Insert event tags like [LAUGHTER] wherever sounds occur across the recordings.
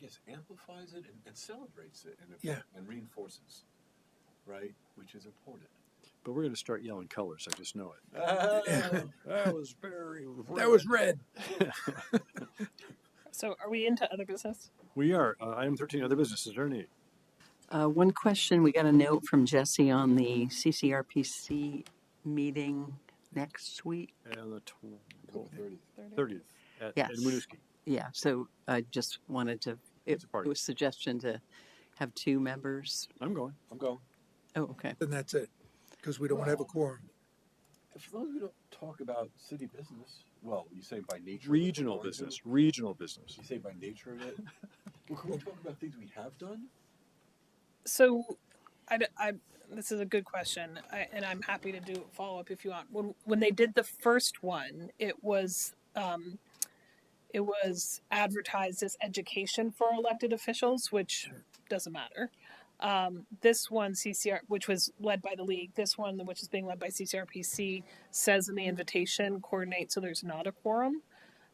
guess, amplifies it and, and celebrates it and, Yeah. and reinforces, right? Which is important. But we're going to start yelling colors. I just know it. Oh, [LAUGHS] That was very. That was red. So are we into other business? We are. Uh, item 13, other business. Is there any? Uh, one question, we got a note from Jesse on the CCRPC meeting next week. And the Cool, 30. 30th at Yes. in Winooski. Yeah, so I just wanted to, it It's a party. it was suggestion to have two members. I'm going. I'm going. Oh, okay. And that's it. Because we don't want to have a quorum. For those of you who don't talk about city business, well, you say by nature. of it, we're Regional going to. business. Regional business. You say by nature of it. well, can we talk about things we have done? So, I, d- I- this is a good question, I, and I'm happy to do follow up if you want. When when they did the first one, it was um, it was advertised as education for elected officials, which doesn't matter. Um, this one, CCR, which was led by the league, this one, which is being led by CCRPC, says in the invitation, coordinate so there's not a quorum.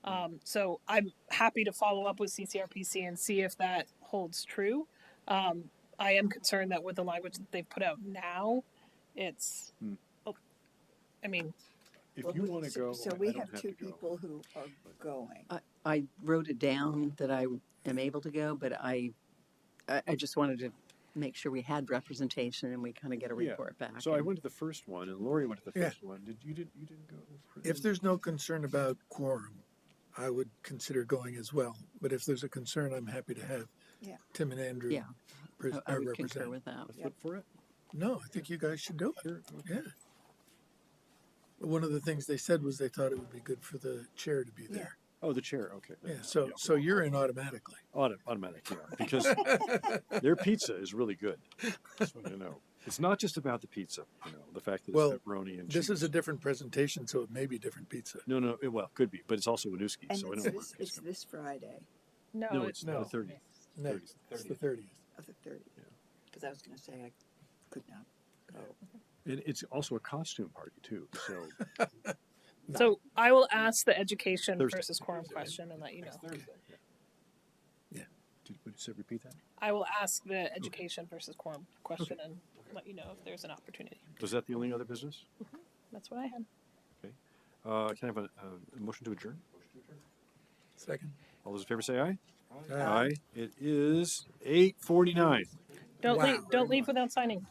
Um, so I'm happy to follow up with CCRPC and see if that holds true. Um, I am concerned that with the language that they've put out now, it's, Hmm. oh, I mean, If Well, you we- want to so- go. So I- I we don't have two to go. people who are going. I wrote it down that I am able to go, but I, I, I just wanted to make sure we had representation and we kind of get a Yeah. report back. So I and- went to the first one, and Lori went to the Yeah. first one. Did you didn't you didn't go? for- mm. If there's no concern about quorum, I would consider going as well. But if there's a concern, I'm happy to have Yeah. Tim and Andrew. Yeah. pres- I- I are would concur represented. with that. a Yeah. foot for it. No, I think you guys should do it. Here, okay. Yeah. One of the things they said was they thought it would be good for the chair to be Yeah. there. Oh, the chair. Okay. Yeah, so, so you're in automatically. Auto, automatic, yeah, [LAUGHS] because their pizza is really good. Just want you to know, it's not just about the pizza. You know, the fact that it's Well, pepperoni and This cheese. is a different presentation, so it may be different pizza. no, no. It, well, could be, but it's also Winooski, And so I it's know where this, it's it's coming. this Friday no, No, Oh, it's it's no. no. the thirtieth. No, it's the 30th. thirtieth. of the Yeah. thirtieth. Because I was gonna say I could not go. And it's also a costume party too. So So I will ask the education Thursday. versus quorum Thursday. question and let you know. Next Thursday. did, would you say repeat that? I will ask the education versus quorum question and let you know if there's an opportunity. Was that the only other business? That's what I had. Uh, can I have a, a motion to adjourn? Second. All those in favor say aye. Aye. It is eight forty-nine. Don't Wow. leave, don't leave without signing.